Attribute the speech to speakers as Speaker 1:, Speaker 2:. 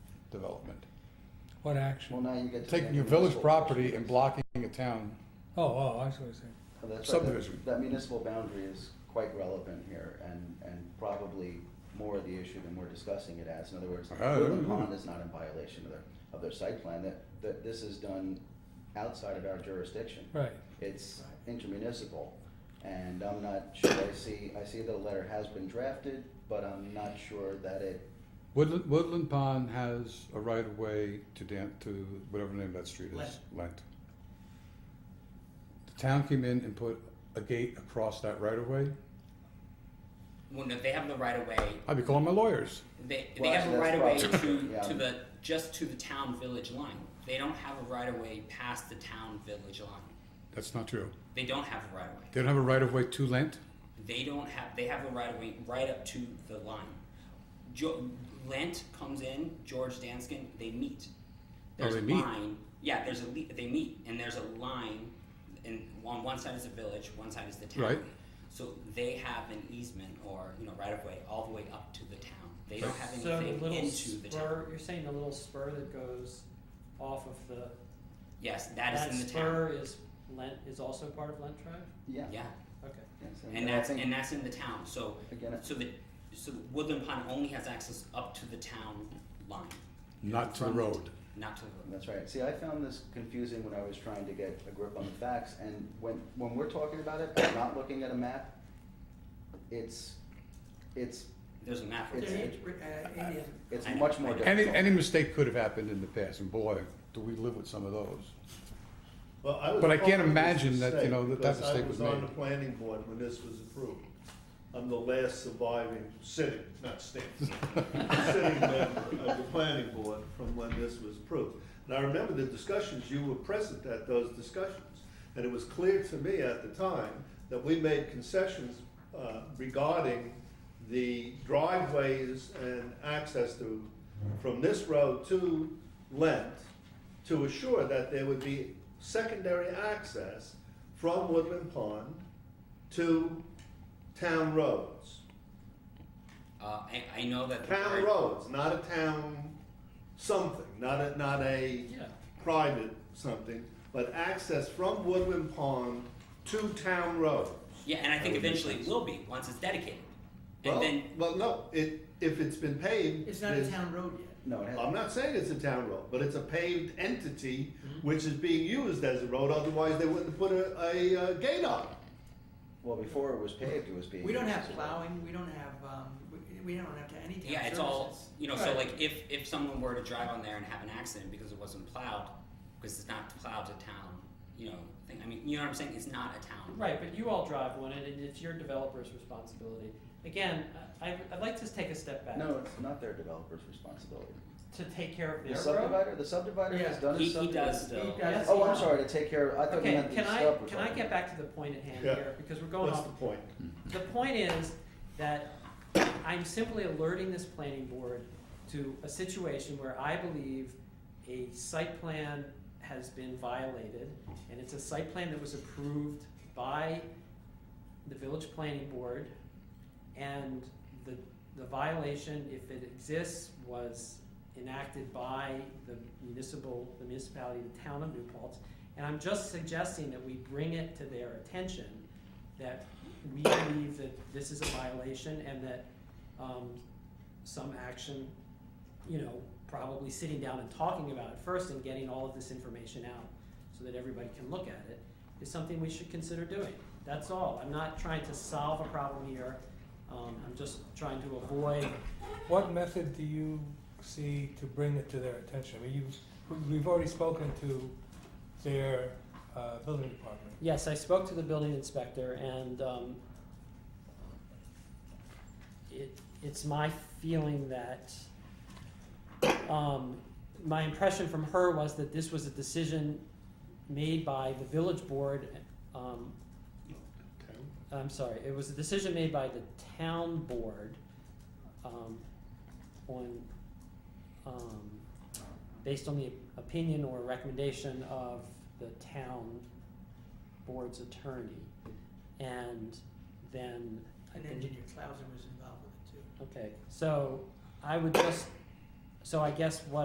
Speaker 1: development.
Speaker 2: What action?
Speaker 3: Well, now you get to.
Speaker 1: Taking
Speaker 3: the
Speaker 1: your village
Speaker 3: municipal
Speaker 1: property and
Speaker 3: portion.
Speaker 1: blocking a town.
Speaker 2: Oh, oh, I see what you're saying.
Speaker 3: So that's right, that-
Speaker 1: subdivision.
Speaker 3: That municipal boundary is quite relevant here and, and probably more the issue than we're discussing it as. In other words,
Speaker 1: Uh,
Speaker 3: Woodland
Speaker 1: yeah.
Speaker 3: Pond is not in violation of their, of their site plan, that, that this is done outside of our jurisdiction.
Speaker 2: Right.
Speaker 3: It's intermunicipal, and I'm not sure, I see, I see the letter has been drafted, but I'm not sure that it,
Speaker 1: Woodland, Woodland Pond has a right of way to Dan, to whatever the name of that street is.
Speaker 4: Lent.
Speaker 1: Lent. The town came in and put a gate across that right of way.
Speaker 4: Well, no, they have the right of way.
Speaker 1: I'd be calling my lawyers.
Speaker 4: They, they
Speaker 3: Well,
Speaker 4: have a
Speaker 3: actually,
Speaker 4: right of way
Speaker 3: that's
Speaker 4: to,
Speaker 3: probably- yeah.
Speaker 4: to the just to the town village line. They don't have a right of way past the town village line.
Speaker 1: That's not true.
Speaker 4: They don't have a right of way.
Speaker 1: They don't have a right of way to Lent.
Speaker 4: They don't have. They have a right of way right up to the line. Jo- Lent comes in. George Danskin. They meet.
Speaker 1: Oh,
Speaker 4: There's
Speaker 1: they
Speaker 4: a
Speaker 1: meet.
Speaker 4: line. Yeah, there's a le- they meet and there's a line, and on one side is the village, one side is the town.
Speaker 1: Right.
Speaker 4: So they have an easement or you know right of way all the way up to the town. They don't have
Speaker 5: So
Speaker 4: anything
Speaker 5: the little
Speaker 4: into the town.
Speaker 5: spur, you're saying the little spur that goes off of the,
Speaker 4: Yes, that
Speaker 5: that
Speaker 4: is in the town.
Speaker 5: spur is Lent, is also part of Lent Drive?
Speaker 3: yeah.
Speaker 4: Yeah,
Speaker 5: Okay.
Speaker 3: yes,
Speaker 4: and
Speaker 3: I
Speaker 4: that's
Speaker 3: think,
Speaker 4: and that's in the town. So
Speaker 3: Again,
Speaker 4: so the so Woodland Pond only has access up to the town line,
Speaker 1: Not to the
Speaker 4: From-
Speaker 1: road.
Speaker 4: not to the road.
Speaker 3: That's right. See, I found this confusing when I was trying to get a grip on the facts, and when, when we're talking about it, I'm not looking at a map. It's, it's,
Speaker 4: There's a map.
Speaker 3: It's-
Speaker 4: right there.
Speaker 5: uh,
Speaker 3: it's
Speaker 4: I know,
Speaker 3: much more
Speaker 4: I know.
Speaker 3: difficult.
Speaker 1: Any, any mistake could have happened in the past, and boy, do we live with some of those.
Speaker 6: Well, I was
Speaker 1: But I can't
Speaker 6: part of this
Speaker 1: imagine that, you
Speaker 6: mistake
Speaker 1: know, that that
Speaker 6: because I
Speaker 1: mistake was
Speaker 6: on
Speaker 1: made.
Speaker 6: the planning board when this was approved. I'm the last surviving sitting, not standing, sitting member of the planning board from when this was approved. And I remember the discussions, you were present at those discussions. And it was clear to me at the time that we made concessions uh, regarding the driveways and access to, from this road to Lent, to assure that there would be secondary access from Woodland Pond to town roads.
Speaker 4: Uh, I, I know that. the
Speaker 6: Town
Speaker 4: right-
Speaker 6: roads, not a town something, not a, not a
Speaker 5: Yeah.
Speaker 6: private something, but access from Woodland Pond to town roads.
Speaker 4: Yeah, and I think eventually it will be, once it's dedicated.
Speaker 6: Well,
Speaker 4: And then,
Speaker 6: well, no, it, if it's been paved.
Speaker 7: It's not a
Speaker 6: there's-
Speaker 7: town road yet.
Speaker 3: No, it has,
Speaker 6: I'm not saying it's a town road, but it's a paved entity
Speaker 4: Mm-hmm.
Speaker 6: which is being used as a road, otherwise they wouldn't put a, a, uh gate on it.
Speaker 3: well, before it was paved, it was being.
Speaker 7: We don't have
Speaker 3: used.
Speaker 7: plowing, we don't have, um, we- we don't have to any town services.
Speaker 4: yeah, it's all, you know, so
Speaker 5: Right.
Speaker 4: like if, if someone were to drive on there and have an accident because it wasn't plowed, because it's not plowed to town, you know, thing, I mean, you know what I'm saying? It's not a town.
Speaker 5: Right, but you all drive one, and it's your developer's responsibility. Again, I, I'd like to take a step back.
Speaker 3: No, it's not their developer's responsibility.
Speaker 5: To take care of
Speaker 3: The
Speaker 5: their road.
Speaker 3: subdivider, the subdivider has
Speaker 7: Yeah.
Speaker 3: done
Speaker 4: He,
Speaker 3: his
Speaker 4: he
Speaker 3: subdivision.
Speaker 4: does though.
Speaker 7: does.
Speaker 5: Yes,
Speaker 3: Oh, I'm
Speaker 5: he-
Speaker 3: sorry, to take care of, I thought you
Speaker 5: Okay,
Speaker 3: meant the
Speaker 5: can
Speaker 3: stuff.
Speaker 5: I,
Speaker 3: we're
Speaker 5: can I
Speaker 3: talking
Speaker 5: get back to the point at hand
Speaker 6: Yeah.
Speaker 5: here, because we're going
Speaker 6: What's
Speaker 5: off
Speaker 6: the point?
Speaker 5: The point is that I'm simply alerting this planning board to a situation where I believe a site plan has been violated, and it's a site plan that was approved by the village planning board, and the, the violation, if it exists, was enacted by the municipal, the municipality, the town of New Paltz. And I'm just suggesting that we bring it to their attention, that we believe that this is a violation and that, um, some action, you know, probably sitting down and talking about it first and getting all of this information out so that everybody can look at it, is something we should consider doing. That's all. I'm not trying to solve a problem here. Um, I'm just trying to avoid
Speaker 2: What method do you see to bring it to their attention? I mean, you've, we've already spoken to their, uh, building department.
Speaker 5: Yes, I spoke to the building inspector and um, it, it's my feeling that, um, my impression from her was that this was a decision made by the village board, um,
Speaker 4: Mm-hmm.
Speaker 5: I'm sorry, it was a decision made by the town board, um, on, um, based on the opinion or recommendation of the town board's attorney. And then, I
Speaker 7: An
Speaker 5: believe,
Speaker 7: engineer, Clausen was involved with it too.
Speaker 5: okay, so I would just, so I guess what